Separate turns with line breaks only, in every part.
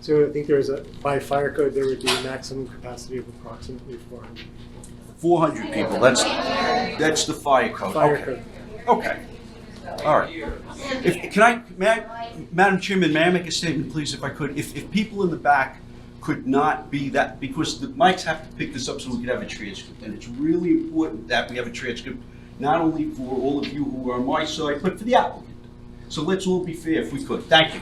So I think there was a, by fire code, there would be a maximum capacity of approximately four hundred.
400 people, that's, that's the fire code,
Fire
okay.
code.
Okay. All right. If, can I, may I, Madam Chairman, may I make a statement, please, if I could? If, if people in the back could not be that, because the mics have to pick this up so we could have a transcript. And it's really important that we have a transcript, not only for all of you who are on my side, but for the applicant. So let's all be fair if we could. Thank you.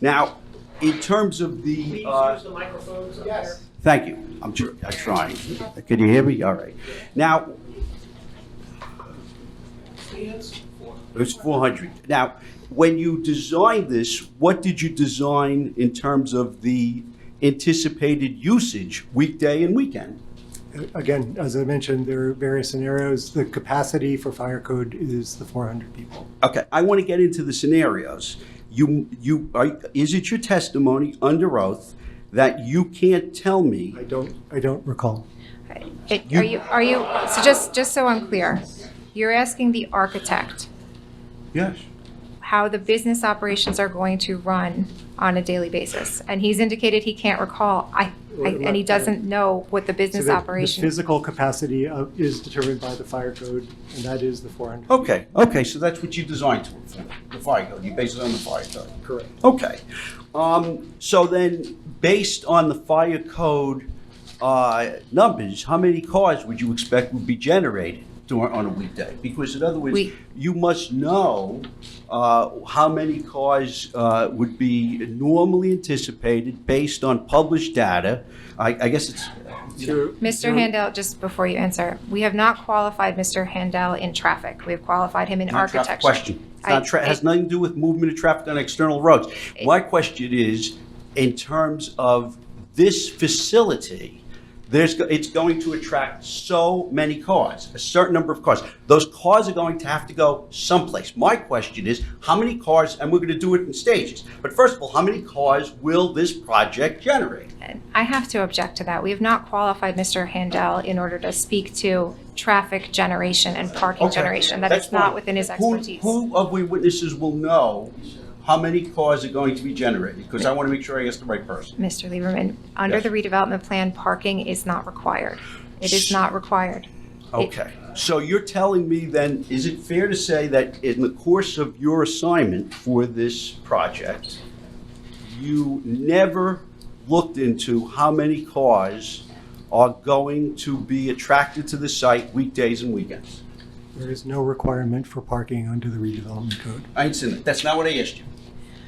Now, in terms of the, uh,
the microphones up
Yes.
Thank you. I'm tr- I'm trying. Can you hear me? All right. Now, it was 400. Now, when you designed this, what did you design in terms of the anticipated usage weekday and weekend?
Uh, Again, as I mentioned, there are various scenarios. The capacity for fire code is the four hundred people.
Okay, I want to get into the scenarios. You, you, are- is it your testimony under oath that you can't tell me?
I don't, I don't recall.
It-
You-
Are you, are you, so just, just so I'm clear, you're asking the architect
Yes.
how the business operations are going to run on a daily basis? And he's indicated he can't recall, I, I- and he doesn't know what the
So
business
the- The
operation.
physical capacity of- is determined by the fire code, and that is the four hundred.
Okay, okay, so that's what you designed to, the fire code. You based it on the fire code.
Correct.
Okay. Um, so then, based on the fire code uh, numbers, how many cars would you expect would be generated during, on a weekday? Because in other words,
We-
you must know uh, how many cars uh, would be normally anticipated based on published data. I, I guess it's.
Mr. Handel, just before you answer, we have not qualified Mr. Handel in traffic. We have qualified him in
Not a traffic
architecture.
Question. It's not
I-
tra- has nothing to do with movement of traffic on external roads.
It-
My question is, in terms of this facility, there's, go- it's going to attract so many cars, a certain number of cars. Those cars are going to have to go someplace. My question is, how many cars, and we're going to do it in stages, but first of all, how many cars will this project generate?
I have to object to that. We have not qualified Mr. Handel in order to speak to traffic generation and parking
Okay,
generation. That
that's
is not
fine.
within his
Who-
expertise.
Who of we witnesses will know how many cars are going to be generated? Because I want to make sure I ask the right person.
Mr. Lieberman, under
Yes.
the redevelopment plan, parking is not required. It is not required.
Okay, so you're telling me then, is it fair to say that in the course of your assignment for this project, you never looked into how many cars are going to be attracted to the site weekdays and weekends?
There is no requirement for parking under the redevelopment code.
I ain't seen it, that's not what I asked you.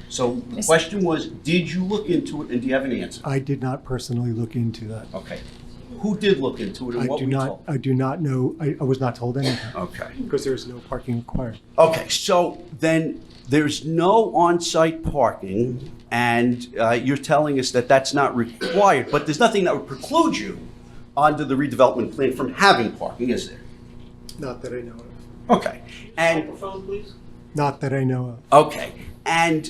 So the
Miss-
question was, did you look into it and do you have an answer?
I did not personally look into that.
Okay, who did look into it
I
and what
do
were you
not,
told?
I do not know, I, I was not told anything,
Okay.
because there is no parking required.
Okay, so then there's no on-site parking, and uh, you're telling us that that's not required, but there's nothing that would preclude you under the redevelopment plan from having parking, is there?
Not that I know of.
Okay, and,
Microphone, please.
Not that I know of.
okay, and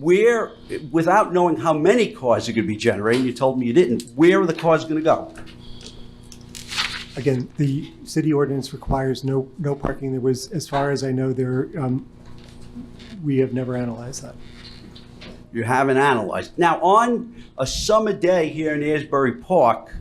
where, without knowing how many cars are going to be generated, you told me you didn't, where are the cars going to go?
Again, the city ordinance requires no, no parking. There was, as far as I know, there, um, we have never analyzed that.
you haven't analyzed. Now, on a summer day here in Asbury Park,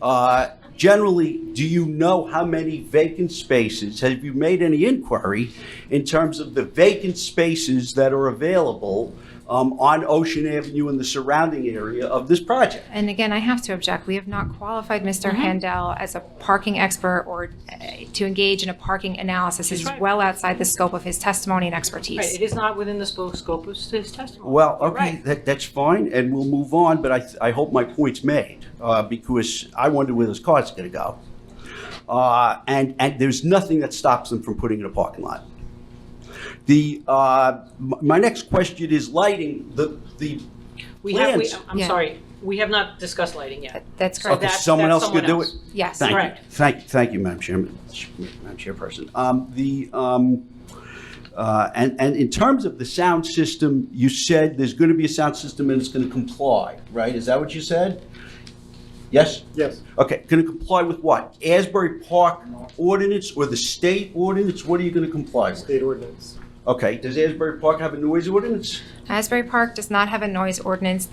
uh, generally, do you know how many vacant spaces? Have you made any inquiry in terms of the vacant spaces that are available um, on Ocean Avenue and the surrounding area of this project?
And again, I have to object. We have not qualified
Mm-hmm.
Mr. Handel as a parking expert or uh, to engage in a parking analysis. This is
right.
well outside the scope of his testimony and
Right,
expertise.
it is not within the spo- scope of his testimony.
Well,
You're
okay,
right.
that, that's fine, and we'll move on, but I, th- I hope my point's made, uh, because I wonder where this car's gonna go. Uh, and, and there's nothing that stops them from putting it in a parking lot. The, uh, m- my next question is lighting, the, the
We have, we,
plans.
I'm
Yeah.
sorry, we have not discussed lighting yet.
That's
So
correct.
Okay,
that's-
someone
that's
else could do
someone
it?
else.
Yes.
Thank you,
Correct.
thank, thank you, Madam Chairman, Madam Chairperson. Um, the, um, uh, and, and in terms of the sound system, you said there's gonna be a sound system and it's gonna comply, right? Is that what you said? Yes?
Yes.
Okay, gonna comply with what? Asbury Park ordinance or the state ordinance? What are you gonna comply with?
State ordinance.
Okay, does Asbury Park have a noise ordinance?
Asbury Park does not have a noise ordinance